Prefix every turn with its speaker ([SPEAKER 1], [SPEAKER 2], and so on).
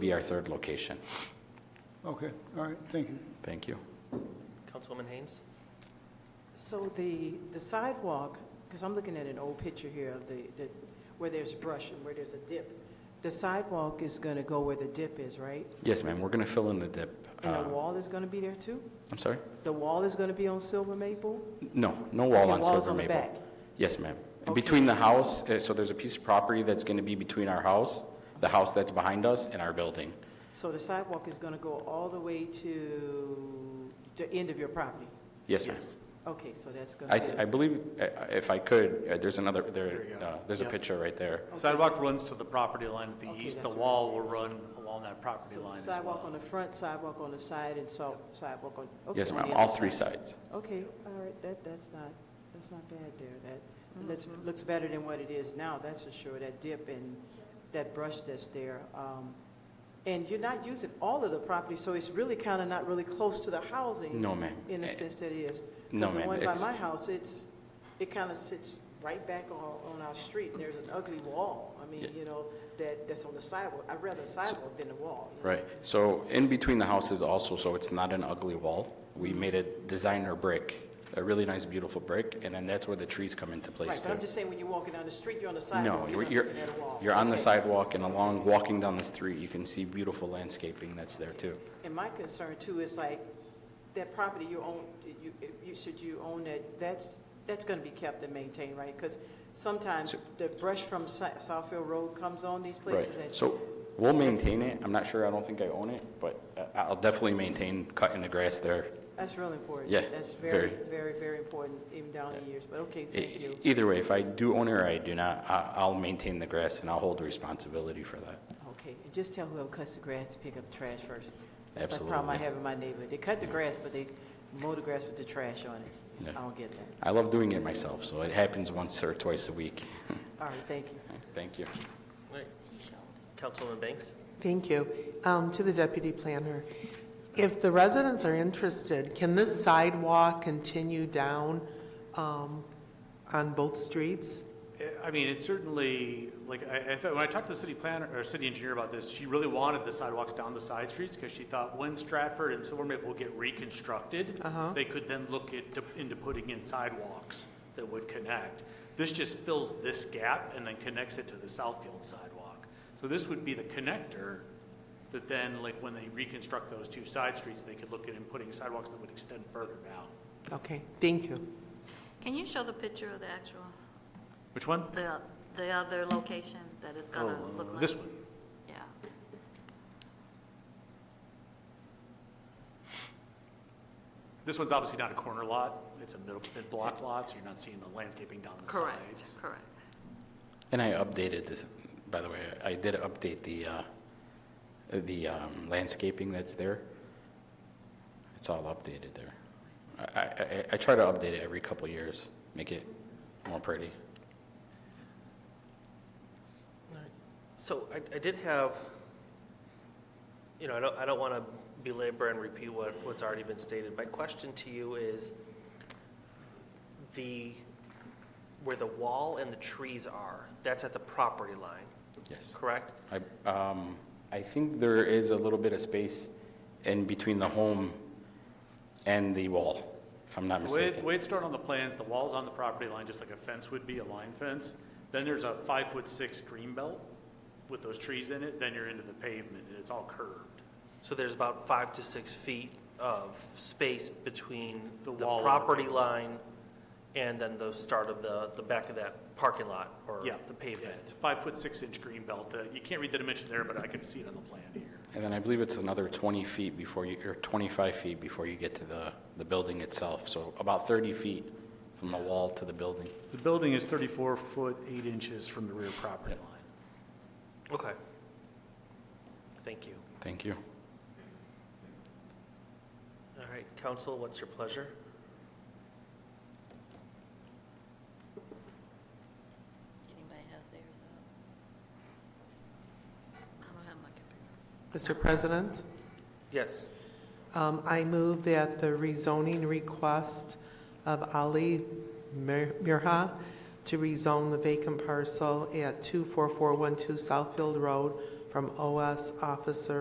[SPEAKER 1] be our third location.
[SPEAKER 2] Okay, all right, thank you.
[SPEAKER 1] Thank you.
[SPEAKER 3] Councilwoman Haynes?
[SPEAKER 4] So the, the sidewalk, because I'm looking at an old picture here of the, the, where there's brush and where there's a dip. The sidewalk is gonna go where the dip is, right?
[SPEAKER 1] Yes, ma'am, we're going to fill in the dip.
[SPEAKER 4] And the
[SPEAKER 1] Uh,
[SPEAKER 4] wall is gonna be there too?
[SPEAKER 1] I'm sorry?
[SPEAKER 4] The wall is gonna be on Silver Maple?
[SPEAKER 1] No, no wall
[SPEAKER 4] Okay,
[SPEAKER 1] on
[SPEAKER 4] wall's
[SPEAKER 1] Silver
[SPEAKER 4] on the
[SPEAKER 1] Maple.
[SPEAKER 4] back.
[SPEAKER 1] Yes, ma'am. And
[SPEAKER 4] Okay.
[SPEAKER 1] between the house, uh, so there's a piece of property that's going to be between our house, the house that's behind us, and our building.
[SPEAKER 4] So the sidewalk is gonna go all the way to the end of your property?
[SPEAKER 1] Yes, ma'am.
[SPEAKER 4] Okay, so that's gonna
[SPEAKER 1] I,
[SPEAKER 4] be...
[SPEAKER 1] th- I believe, uh, if I could, uh, there's another, there, uh, there's a
[SPEAKER 5] Yep.
[SPEAKER 1] picture right there.
[SPEAKER 5] Sidewalk runs to the property line at the
[SPEAKER 4] Okay,
[SPEAKER 5] east, the
[SPEAKER 4] that's right.
[SPEAKER 5] wall will run along that property
[SPEAKER 4] So
[SPEAKER 5] line as
[SPEAKER 4] Sidewalk on
[SPEAKER 5] well.
[SPEAKER 4] the front, sidewalk on the side, and so sidewalk on... okay,
[SPEAKER 1] Yes,
[SPEAKER 4] on
[SPEAKER 1] ma'am,
[SPEAKER 4] the
[SPEAKER 1] all
[SPEAKER 4] other
[SPEAKER 1] three
[SPEAKER 4] side.
[SPEAKER 1] sides.
[SPEAKER 4] Okay, all right, that, that's not, that's not bad there, that, that's, looks better than what it is now, that's for sure, that dip and that brush that's there. Um, And you're not using all of the property, so it's really kind of not really close to the housing.
[SPEAKER 1] No, ma'am.
[SPEAKER 4] In the
[SPEAKER 1] Eh,
[SPEAKER 4] sense that it is. 'Cause
[SPEAKER 1] no,
[SPEAKER 4] the
[SPEAKER 1] ma'am,
[SPEAKER 4] one by
[SPEAKER 1] it's-
[SPEAKER 4] my house, it's, it kind of sits right back on, on our street, and there's an ugly wall, I mean,
[SPEAKER 1] Yeah.
[SPEAKER 4] you know, that, that's on the sidewalk, I'd rather a sidewalk than a wall.
[SPEAKER 1] Right, so in between the houses also, so it's not an ugly wall. We made a designer brick, a really nice, beautiful brick, and then that's where the trees come into place
[SPEAKER 4] Right, but
[SPEAKER 1] too.
[SPEAKER 4] I'm just saying, when you're walking down the street, you're on the
[SPEAKER 1] No,
[SPEAKER 4] sidewalk, you're
[SPEAKER 1] you're,
[SPEAKER 4] not
[SPEAKER 1] you're,
[SPEAKER 4] looking at a wall.
[SPEAKER 1] you're on the
[SPEAKER 4] Okay.
[SPEAKER 1] sidewalk and along, walking down the street, you can see beautiful landscaping that's there too.
[SPEAKER 4] And my concern too is like, that property you own, you, you, should you own that, that's, that's gonna be kept and maintained, right? Because sometimes the brush from Si- Southfield Road comes on these
[SPEAKER 1] Right,
[SPEAKER 4] places and.
[SPEAKER 1] so we'll maintain it. I'm not sure, I don't think I own it, but uh, I'll definitely maintain cutting the grass there.
[SPEAKER 4] That's really important.
[SPEAKER 1] Yeah,
[SPEAKER 4] That's very,
[SPEAKER 1] very.
[SPEAKER 4] very, very important even down the years, but okay,
[SPEAKER 1] E-
[SPEAKER 4] thank
[SPEAKER 1] e-
[SPEAKER 4] you.
[SPEAKER 1] Either way, if I do own it or I do not, I, I'll maintain the grass and I'll hold responsibility for that.
[SPEAKER 4] Okay, and just tell whoever cuts the grass to pick up the trash first. That's the problem I
[SPEAKER 1] Absolutely.
[SPEAKER 4] have in my neighborhood. They cut the grass, but they mow the grass with the trash on it.
[SPEAKER 1] Yeah.
[SPEAKER 4] I don't get that.
[SPEAKER 1] I love doing it myself, so it happens once or twice a week.
[SPEAKER 4] All right, thank you.
[SPEAKER 1] Thank you.
[SPEAKER 3] Right. Councilwoman Banks?
[SPEAKER 6] Thank you. Um, To the deputy planner, if the residents are interested, can this sidewalk continue down um, on both streets?
[SPEAKER 5] I- I mean, it's certainly, like, I, I thought, when I talked to the city planner, or city engineer about this, she really wanted the sidewalks down the side streets, because she thought when Stratford and Silver Maple get reconstructed, they could then look into, into putting in sidewalks that would connect. This just fills this gap and then connects it to the Southfield sidewalk. So this would be the connector that then, like, when they reconstruct those two side streets, they could look at and putting sidewalks that would extend further down.
[SPEAKER 6] Okay, thank you.
[SPEAKER 7] Can you show the picture of the actual,
[SPEAKER 5] Which one?
[SPEAKER 7] the, the other location that it's gonna look like?
[SPEAKER 5] Oh, This one.
[SPEAKER 7] Yeah.
[SPEAKER 5] This one's obviously not a corner lot, it's a middle, mid-block lot, so you're not seeing the landscaping down the sides.
[SPEAKER 7] Correct, correct.
[SPEAKER 1] And I updated this, by the way, I did update the, uh, the um, landscaping that's there. It's all updated there. I- I, I, I try to update it every couple years, make it more pretty.
[SPEAKER 3] So I, I did have, you know, I don't, I don't want to belabor and repeat what, what's already been stated. My question to you is, the, where the wall and the trees are, that's at the property line,
[SPEAKER 1] Yes.
[SPEAKER 3] correct?
[SPEAKER 1] I, um, I think there is a little bit of space in between the home and the wall, if I'm not
[SPEAKER 5] The way, the
[SPEAKER 1] mistaken.
[SPEAKER 5] way it's drawn on the plans, the wall's on the property line, just like a fence would be, a line fence. Then there's a five-foot-six green belt with those trees in it, then you're into the pavement, and it's all curved.
[SPEAKER 3] So there's about five to six feet of space between
[SPEAKER 5] The
[SPEAKER 3] the
[SPEAKER 5] wall and the
[SPEAKER 3] property line and then the start of the, the back of that parking lot or
[SPEAKER 5] Yeah,
[SPEAKER 3] the
[SPEAKER 5] Yeah,
[SPEAKER 3] pavement.
[SPEAKER 5] it's a five-foot-six-inch green belt. Uh, You can't read the dimension there, but I can see it on the plan here.
[SPEAKER 1] And then I believe it's another 20 feet before you, or 25 feet before you get to the, the building itself. So about 30 feet from the wall to the building.
[SPEAKER 5] The building is thirty-four foot, eight inches from the rear property line.
[SPEAKER 3] Okay. Thank you.
[SPEAKER 1] Thank you.
[SPEAKER 3] All right, council, what's your pleasure?
[SPEAKER 7] Anybody have theirs up? I don't have my computer.
[SPEAKER 6] Mr. President,
[SPEAKER 3] Yes.
[SPEAKER 6] um, I move that the rezoning request of Ali Mir- Mirha to rezone the vacant parcel at 24412 Southfield Road from OS Officer